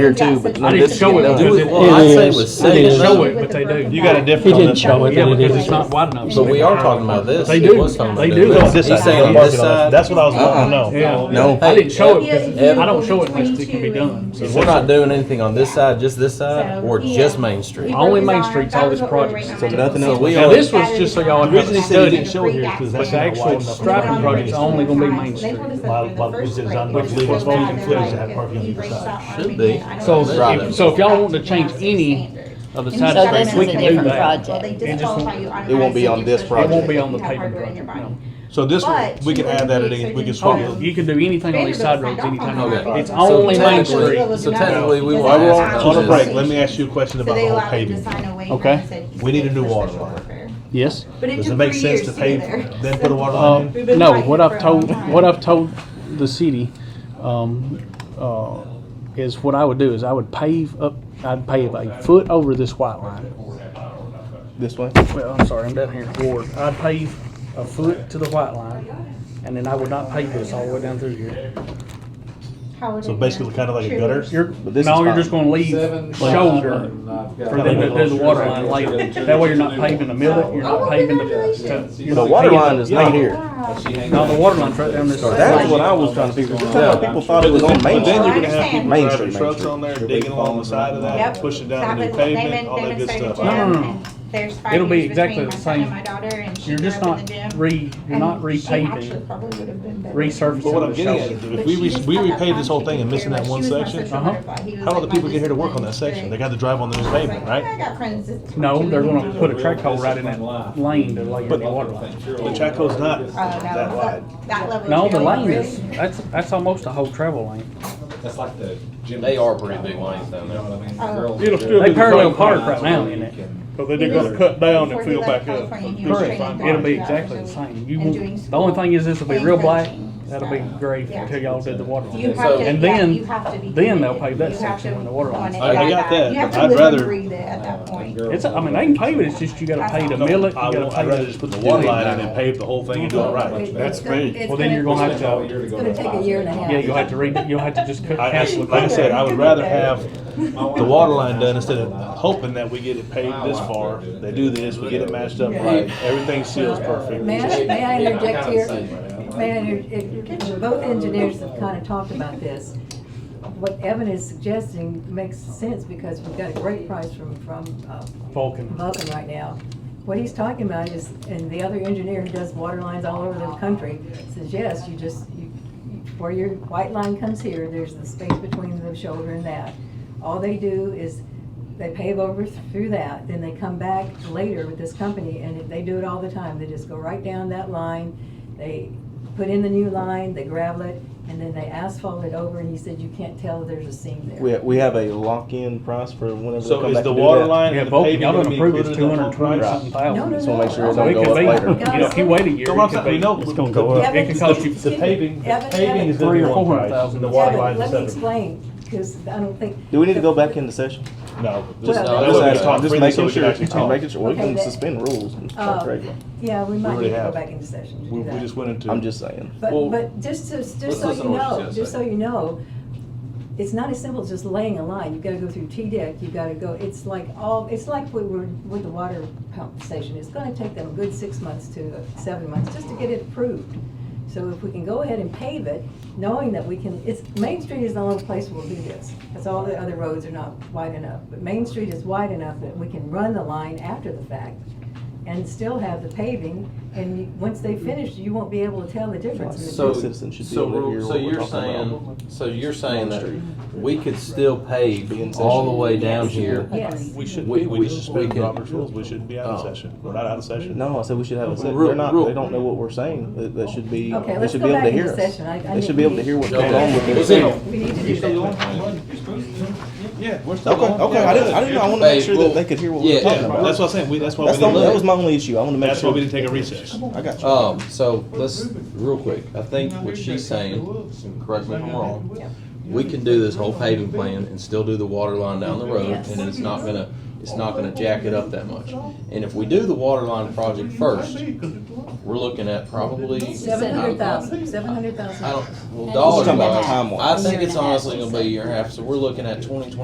here too, but. I didn't show it because it- Well, I'd say it was They It didn't is. show it, but they do. You got a He different on didn't this show one. it. Yeah, but it because is. it's not wide enough. But so we they- are talking about this. They He do, was talking they about do. this. on This He's side, saying I'm on this working on- side. That's what I was wanting to Yeah, know. no, I didn't show it because I don't show it Evan- because it can be done. So We're not doing anything on this side, just this side, So, or yeah. just Main Street. Only Main Street's all this project. project. So nothing else. Now, this was just so y'all The have a reason he said he didn't study. show it here is because that's But the not actual wide enough. for striping parking project's spaces. only gonna be Main Street. My- my- which is unbelievable. It's voting flips that have parking on either side. Should be. So, Right. if- so if y'all want to change any of the So side this streets, we is a can do different that. project. It just won't- It won't be on this It project. won't be on the paving project, no. So this one, But we you can add wouldn't that be at any, we can expected swap to Oh, it. you can do anything on these side roads anytime you Okay. want. It's So only Main technically- Street. So technically, we will. Why we're have to On a do break, this. let me ask you a question about the whole paving. Okay. We need a new water line. Yes. Uh, Does it make sense to pave, then put a water line in? No, what I've told, what I've told the city, um, uh, is what I would do is I would pave up, I'd pave a foot over this white line. This way? Well, I'm sorry, I'm down here in Ward. I'd pave a foot to the white line, and then I would not pave this all the way down through here. So basically kind of like a gutter? You're, But this is no, you're fine. just gonna leave shoulder for them to do the water line later. That way you're not paving the middle, you're not paving the. to- you're The not water paving line the- is not here. No, the water line's right down this. That's what I was trying to figure out. People thought it was on Main But then you're Street. gonna have people Main driving Street, Main trucks Street. on there, digging along the side of that, Yep. pushing down the new pavement, all that good stuff. No, no, no. It'll be exactly the same. You're just not re, you're not repaving, resurfacing. But what I'm the getting shoulder. at, is if we, re- we repaved this whole thing and missing that one section, how do the people get here to work on that section? They got to drive on the new pavement, right? No, they're Uh, gonna put a track hole right in that lane to lay in the water line. The track hole's not that wide. That level. No, the lane is, that's, that's almost a whole travel lane. That's like the gym. They are pretty big lanes down there. Oh. there. It'll still They parallel park right now in it. But they did gotta cut down and fill back up. Correct. It'll be exactly the same. You won't, the only thing is this will be real black. That'll be gray until y'all do the water You line. have to, And yeah, then- you have to be. then they'll committed. pave that You have section to when the water want line's it I- I back got up. that, You have but to I'd live and rather- breathe it at that point. It's, I mean, they can pave it, it's just you gotta pay to mill it, you I gotta would, I'd rather pay. just put the water line in and pave the whole thing and do it right. That's me. Well, then you're gonna have all to, year to go. It's gonna take a year and a half. yeah, you'll have to read, you'll have to just cut. I, I, cancel it. like I said, I would rather have the water line done instead of hoping that we get it paved this far. They do this, we get it matched up right, everything seals perfect. May I, may I interject here? May I, inter- it- it- both engineers have kind of talked about this. What Evan is suggesting makes sense because we've got a great price from, from uh, Vulcan. Vulcan right now. What he's talking about is, and the other engineer who does water lines all over the country says, yes, you just, you, where your white line comes here, there's the space between the shoulder and that. All they do is they pave over through that, then they come back later with this company, and they do it all the time. They just go right down that line, they put in the new line, they gravel it, and then they asphalt it over, and he said, you can't tell there's a seam there. We, we have a lock-in price for whenever they So come is back to the do water that. line Yeah, and the Vulcan, paving y'all gonna done be approved included it's in two that hundred whole and twenty price? something No, no, thousand. no. Just wanna make sure it I- don't It go could up be, later. you know, if you wait a year, So what I'm it saying, we could know- be, it's gonna go up. It Evan, can cost you, excuse me. The paving, the Evan, paving is Evan, gonna be Three or one four price, thousand. and the water Evan, line is Let me separate. explain, because I don't think. Do we need to go back into session? No. Well, just- no, that way just we ask- can talk just freely so making we can sure, actually just talk. making sure, we Okay, can that- suspend rules and talk Uh, regular. yeah, we might already need to go have. back into session to We, do we that. just went into. I'm just saying. But, Well, but just to, let's just so listen you to what she's know, gonna just say. so you know, it's not as simple as just laying a line. You've got to go through T-Dec, you've got to go, it's like all, it's like we were with the water pump station. It's going to take them a good six months to seven months just to get it approved. So if we can go ahead and pave it, knowing that we can, it's, Main Street is the only place we'll do this. Because all the other roads are not wide enough. But Main Street is wide enough that we can run the line after the fact and still have the paving. And you- once they finish, you won't be able to tell the difference. in the So, difference. Citizens should be so, able to we're- hear so what we're you're talking about. saying, so you're saying that Street. we could still Be in pave all the session. way down Yes. here. Yes. We shouldn't We- be, we we- just we suspended can- Robert's rules, we shouldn't be out of Oh. session, we're not out of session. No, I said we should have a session. Real- They're not, real- they don't know what we're saying. They, they should be, Okay, they let's should go be able to back into hear us. session. I- I They should think be able to we- hear what's Okay. going on with We'll this. see. We need to do that. Yeah, we're still Okay, going. okay, I didn't, I didn't know, I wanted to Hey, make sure well, that they could hear what we yeah. were talking Yeah, about. that's what I'm saying, we, that's why we That's the only, that was didn't, my only issue, I wanted to make that's why sure. we didn't take a recess. I got you. Um, so let's, real quick, I think what she's saying, and correct me if I'm wrong, we can do this whole paving plan and still do the water line down the road, Yes. and it's not gonna, it's not gonna jack it up that much. And if we do the water line project first, we're looking at probably. Seven hundred thousand, seven hundred thousand. I don't, well, And Just dollars. talking about wise, time-wise. I think Year and it's a half, honestly she gonna be a said. year and a half, so we're looking at twenty twenty